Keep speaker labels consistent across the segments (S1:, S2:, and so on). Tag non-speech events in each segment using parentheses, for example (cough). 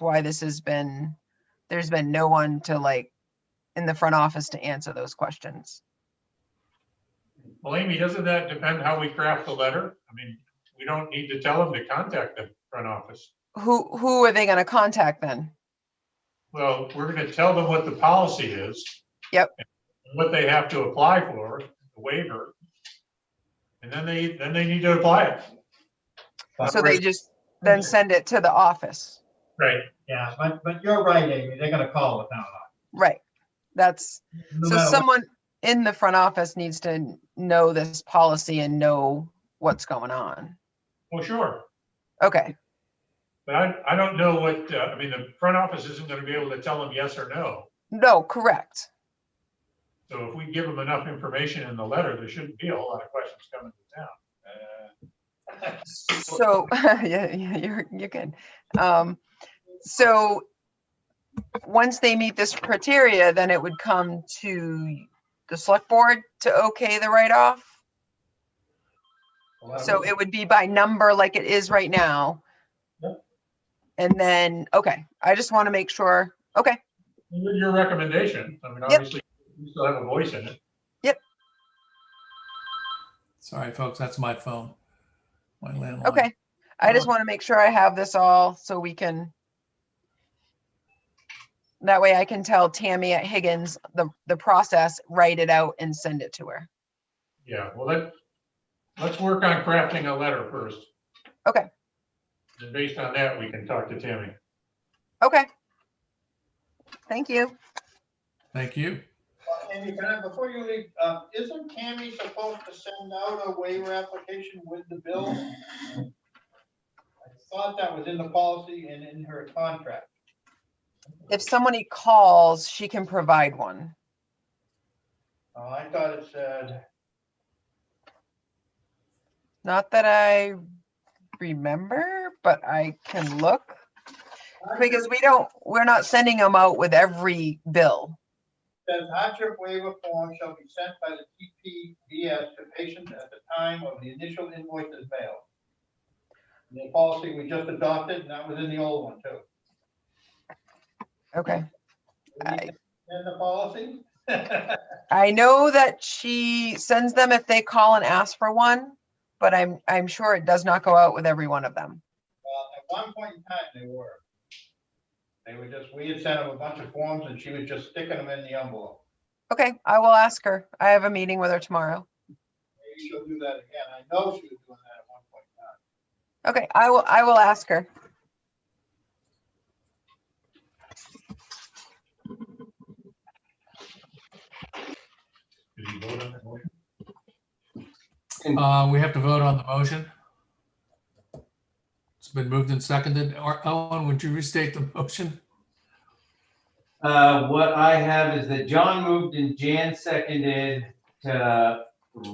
S1: why this has been, there's been no one to like, in the front office to answer those questions.
S2: Well, Amy, doesn't that depend how we craft the letter? I mean, we don't need to tell them to contact the front office.
S1: Who, who are they gonna contact then?
S2: Well, we're gonna tell them what the policy is.
S1: Yep.
S2: and What they have to apply for, the waiver. And then they, then they need to apply it.
S1: So they just then send it to the office,
S2: Right.
S3: Yeah, but, but you're right, Amy, they're gonna call it now.
S1: right? That's,
S3: No
S1: so
S3: matter what.
S1: someone in the front office needs to know this policy and know what's going on.
S2: Well, Oh, sure,
S1: Okay,
S2: but I, I don't know what, uh, I mean, the front office isn't gonna be able to tell them yes or no.
S1: no, correct.
S2: So if we give them enough information in the letter, there shouldn't be a whole lot of questions coming to town.
S1: So, (laughs) yeah, yeah, you're, you're good. Um, so once they meet this criteria, then it would come to the select board to okay the write-off. So it would be by number like it is right now.
S2: Yep.
S1: And then, okay, I just want to make sure, okay,
S2: Your your recommendation, I mean, obviously, you still have a voice in it.
S4: Sorry, folks, that's my phone. My landline.
S1: okay. I just want to make sure I have this all so we can. That way I can tell Tammy at Higgins the, the process, write it out and send it to her.
S2: Yeah, well, let, let's work on crafting a letter first.
S1: Okay.
S2: And based on that, we can talk to Tammy.
S1: Okay. Thank you.
S4: Thank you.
S3: Amy, can I, before you leave, uh, isn't Tammy supposed to send out a waiver application with the bill? I thought that was in the policy and in her contract.
S1: If somebody calls, she can provide one.
S3: Oh, I thought it said,
S1: Not that I remember, but I can look. Because we don't, we're not sending them out with every bill.
S3: says hardship waiver form shall be sent by the TPDS to patients at the time of the initial invoice is mailed. The policy we just adopted, and that was in the old one too.
S1: Okay. I-
S3: In the policy? (laughs)
S1: I know that she sends them if they call and ask for one, but I'm, I'm sure it does not go out with every one of them.
S3: Well, at one point in time, they were. They were just, we had sent them a bunch of forms and she was just sticking them in the envelope.
S1: Okay, I will ask her. I have a meeting with her tomorrow.
S3: Maybe she'll do that again. I know she was doing that at one point in time.
S1: Okay, I will, I will ask her.
S2: Did you vote on that motion?
S4: Uh, we have to vote on the motion. It's been moved and seconded. Or Owen, would you restate the motion?
S5: Uh, what I have is that John moved and Jan seconded to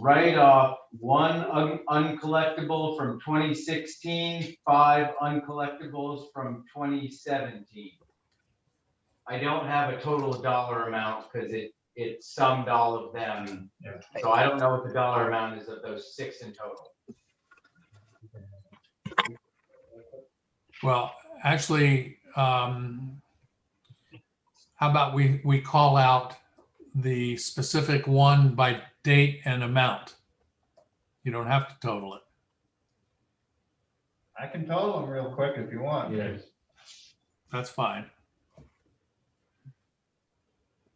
S5: write off one un- uncollectible from 2016, five uncollectibles from 2017. I don't have a total dollar amount because it, it summed all of them.
S2: Yeah.
S5: So I don't know what the dollar amount is of those six in total.
S4: Well, actually, um, how about we, we call out the specific one by date and amount? You don't have to total it.
S3: I can total them real quick if you want.
S5: Yes.
S4: That's fine.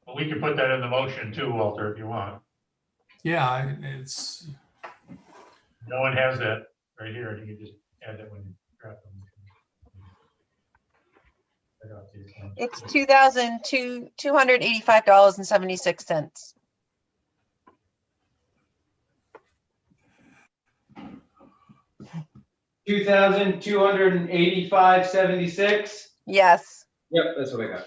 S2: Well, we can put that in the motion too, Walter, if you want.
S4: Yeah, I- it's,
S2: No one has that right here, and you can just add that when you craft the motion. I got these ones.
S1: It's two thousand two, two hundred eighty-five dollars and seventy-six cents.
S5: Two thousand two hundred and eighty-five seventy-six.
S1: Yes.
S5: Yep, that's what I got.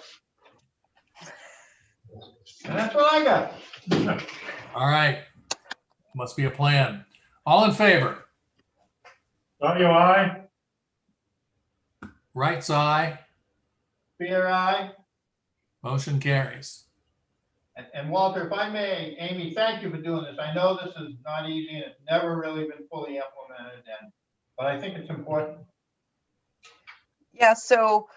S3: And that's what I got.
S4: all right. Must be a plan. All in favor?
S2: Audio aye?
S4: Right side?
S3: Fear I.
S4: Motion carries.
S3: And- And Walter, if I may, Amy, thank you for doing this. I know this is not easy and it's never really been fully implemented and, but I think it's important.
S1: Yeah, so